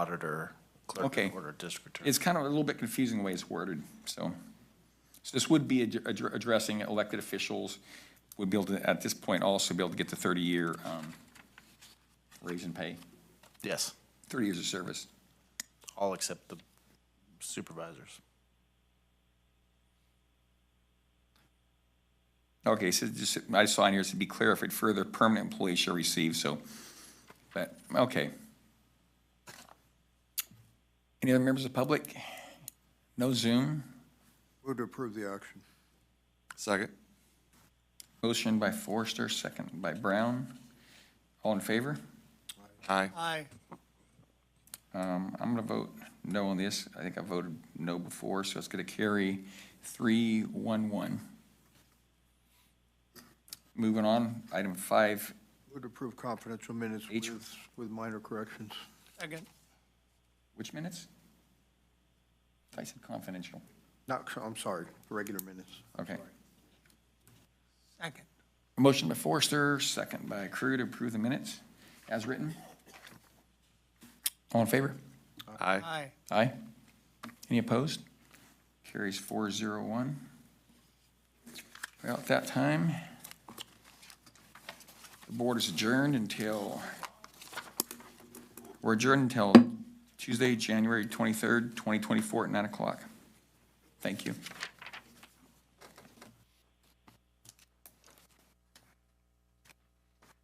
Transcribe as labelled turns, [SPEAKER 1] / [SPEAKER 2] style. [SPEAKER 1] auditor, clerk
[SPEAKER 2] Okay.
[SPEAKER 1] and order district attorney.
[SPEAKER 2] It's kind of a little bit confusing the way it's worded, so. So this would be ad- ad- addressing elected officials, would be able to, at this point, also be able to get the 30-year um, raise in pay,
[SPEAKER 1] Yes,
[SPEAKER 2] 30 years of service.
[SPEAKER 1] all except the supervisors.
[SPEAKER 2] Okay, so just, I saw in here, to be clarified further, permanent employees shall receive, so, but, okay. Any other members of the public? No Zoom?
[SPEAKER 3] Move to approve the action.
[SPEAKER 4] Second.
[SPEAKER 2] Motion by Forrester, second by Brown. All in favor?
[SPEAKER 4] Aye.
[SPEAKER 1] Aye.
[SPEAKER 2] Um, I'm gonna vote no on this. I think I voted no before, so it's gonna carry three, one, one. Moving on, item five
[SPEAKER 3] Move to approve confidential minutes
[SPEAKER 2] Each-
[SPEAKER 3] with, with minor corrections.
[SPEAKER 1] Again.
[SPEAKER 2] Which minutes? I said confidential.
[SPEAKER 3] Not, I'm sorry, regular minutes.
[SPEAKER 2] Okay.
[SPEAKER 1] Second.
[SPEAKER 2] Motion by Forrester, second by Crew to approve the minutes as written. All in favor?
[SPEAKER 4] Aye.
[SPEAKER 1] Aye.
[SPEAKER 2] Aye. Any opposed? Carries four zero one. Well, at that time, the board is adjourned until, we're adjourned until Tuesday, January twenty-third, twenty twenty-four at nine o'clock. Thank you.